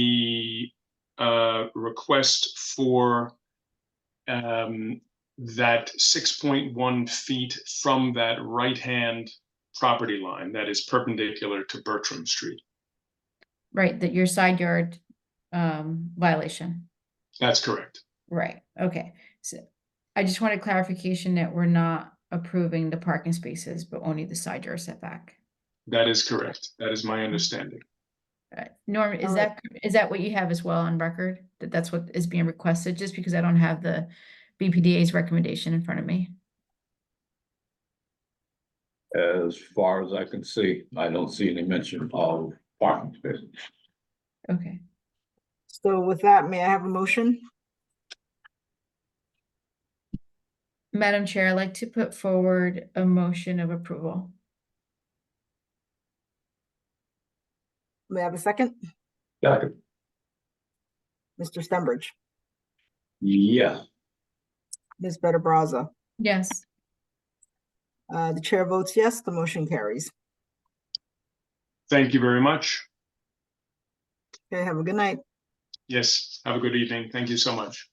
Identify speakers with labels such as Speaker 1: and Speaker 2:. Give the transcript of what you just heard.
Speaker 1: the uh, request for um, that six point one feet from that right-hand property line that is perpendicular to Bertram Street.
Speaker 2: Right, that your side yard um violation,
Speaker 1: That's correct.
Speaker 2: right, okay, so. I just wanted clarification that we're not approving the parking spaces, but only the side yard setback.
Speaker 1: That is correct. That is my understanding.
Speaker 2: Uh, Norm, is
Speaker 3: Alright.
Speaker 2: that, is that what you have as well on record? That that's what is being requested, just because I don't have the BPDA's recommendation in front of me?
Speaker 4: As far as I can see, I don't see any mention of parking spaces.
Speaker 2: Okay,
Speaker 3: So with that, may I have a motion?
Speaker 2: Madam Chair, I'd like to put forward a motion of approval.
Speaker 3: May I have a second?
Speaker 4: Second.
Speaker 3: Mr. Stenbridge,
Speaker 4: Yeah,
Speaker 3: Ms. Better Brazza.
Speaker 2: Yes,
Speaker 3: Uh, the chair votes yes, the motion carries.
Speaker 1: Thank you very much.
Speaker 3: Okay, have a good night.
Speaker 1: Yes, have a good evening. Thank you so much.